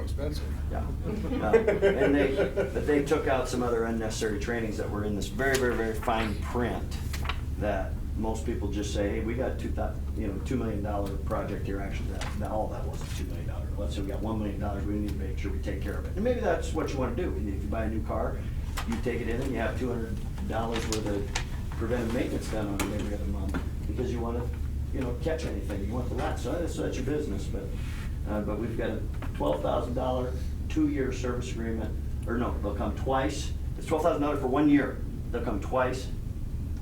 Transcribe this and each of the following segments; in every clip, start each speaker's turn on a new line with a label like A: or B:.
A: expensive.
B: Yeah. No. And they, but they took out some other unnecessary trainings that were in this very, very, very fine print that most people just say, hey, we got two thou, you know, two million dollar project here, actually, that, that, all that was a two million dollar. Let's say we got one million dollars, we need to make sure we take care of it. And maybe that's what you wanna do. If you buy a new car, you take it in and you have two hundred dollars worth of preventive maintenance done on it every other month because you wanna, you know, catch anything. You want the lot, so that's, that's your business, but uh, but we've got a twelve thousand dollar, two-year service agreement, or no, they'll come twice. It's twelve thousand dollars for one year. They'll come twice,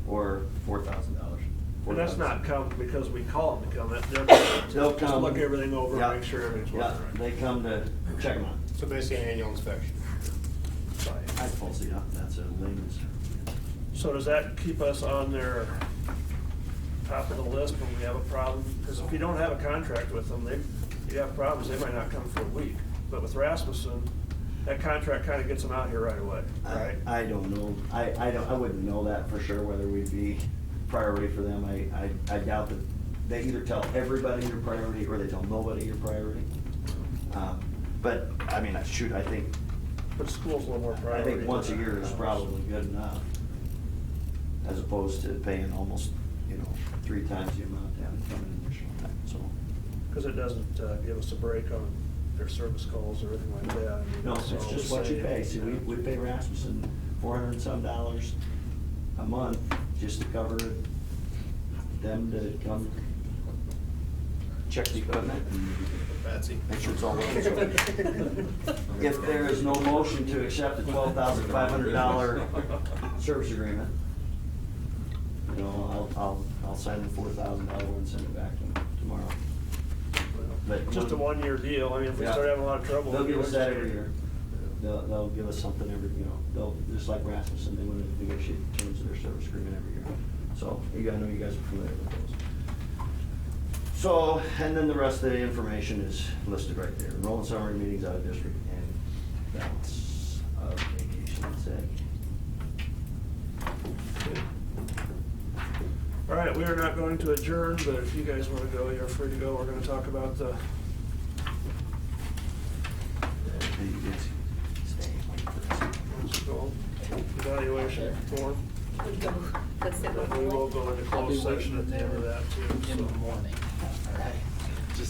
B: or four thousand dollars.
C: And that's not come because we call them to come, that, they'll
B: They'll
C: just
B: come.
C: look everything over,
B: Yeah.
C: and make sure everything's
B: Yeah,
C: working right.
B: they come to check them out.
A: So basically, an annual inspection.
B: I falsely, yeah, that's a layman's.
C: So does that keep us on their top of the list when we have a problem? Because if you don't have a contract with them, they, you have problems, they might not come for a week. But with Rasmussen, that contract kind of gets them out here right away,
B: I,
C: right?
B: I don't know. I, I don't, I wouldn't know that for sure, whether we'd be priority for them. I, I, I doubt that, they either tell everybody your priority, or they tell nobody your priority. Um, But, I mean, I shoot, I think,
C: But school's a little more
B: I
C: priority.
B: think once a year is probably good enough, as opposed to paying almost, you know, three times the amount down from an initial time, so.
C: Because it doesn't uh, give us a break on their service calls or anything like that. I mean,
B: No, it's just what you pay, see, we, we pay Rasmussen four hundred and some dollars a month just to cover them to come check the equipment and
A: Patsy.
B: make sure it's all working. So If there is no motion to accept the twelve thousand five hundred dollar service agreement. You know, I'll, I'll, I'll sign the four thousand dollar one, and send it back to them tomorrow. But-
C: Just a one-year deal, I mean, if we
B: Yeah.
C: start having a lot of trouble.
B: They'll give us that every year.
C: Yeah.
B: They'll, they'll give us something every, you know, they'll, just like Rasmussen, they want to negotiate the terms of their service agreement every year. So, you gotta know you guys are familiar with those. So, and then the rest of the information is listed right there. Enrollment summary, meetings out of district, and balance of vacation, that's it.
C: All right, we are not going to adjourn, but if you guys want to go, you're free to go. We're going to talk about the, what's it called? evaluation form.
D: We go, let's sit with
C: But we will go into closed session at the end of that too,
E: in
C: so.
E: the morning.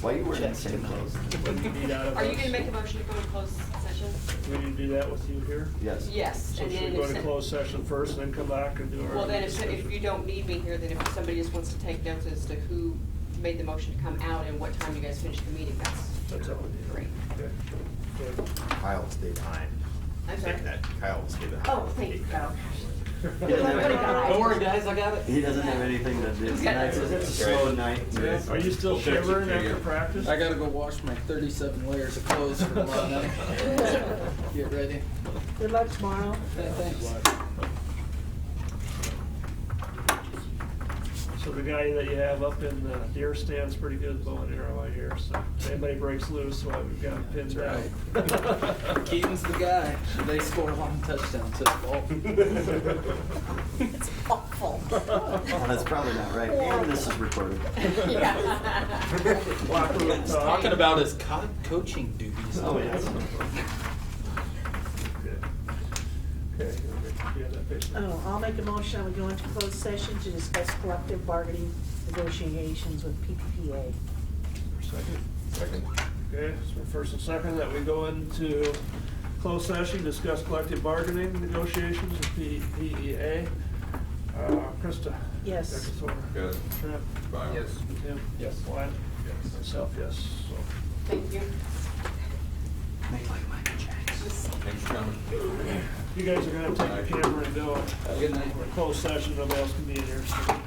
B: Why you wearing the same clothes?
C: But you need out of
D: Are you
C: us.
D: gonna make a motion to go to closed session?
C: We need to do that with you here?
B: Yes.
D: Yes,
C: So
D: and
C: should
D: then
C: we go
D: if,
C: to
D: so-
C: closed session first and then come back and do our?
D: well, then if, so- if you don't need me here, then if somebody just wants to take notes as to who made the motion to come out and what time you guys finished the meeting, that's
C: That's all we need.
D: great.
C: Okay. Okay.
F: Kyle will stay behind.
D: I'm sorry.
F: That Kyle will stay behind.
D: Oh, thank you, Kyle.
E: Don't worry, guys, I got it.
B: He doesn't have anything to do
D: He's got-
B: tonight, so it's a slow night.
C: Are you still
G: We'll fix it
C: shivering
G: for you.
C: after practice?
E: I gotta go wash my thirty-seven layers of clothes for tomorrow night. Get ready.
H: Good luck tomorrow.
E: Yeah, Thanks.
C: So the guy that you have up in the deer stand's pretty good bow and arrow, I hear, so if anybody breaks loose, well, we've got him pinned down.
E: Keaton's the guy. They scored one touchdown to the ball.
H: It's awful.
B: Well, That's probably not right, and this is recorded.
D: Yeah.
C: Locker room
D: He's
C: talk.
D: talking
E: about his co- coaching duties.
B: Oh, yes.
C: Okay, Okay, you have that picture?
H: Oh, I'll make a motion, we go into closed session to discuss collective bargaining negotiations with PPPA.
C: Second.
F: Second.
C: Okay, so first and second, that we go into closed session, discuss collective bargaining negotiations with P- PEA. Uh, Krista?
H: Yes.
C: Eccleston?
G: Good.
C: Trent?
G: Bye. Yes.
C: Tim?
E: Yes.
C: Wyatt? Myself, yes, so.
D: Thank you.
B: Make like Michael Jackson.
G: Thanks for coming.
C: You guys are gonna have to take the camera and go.
E: Have a good night.
C: We're in closed session, nobody else can be in here, so.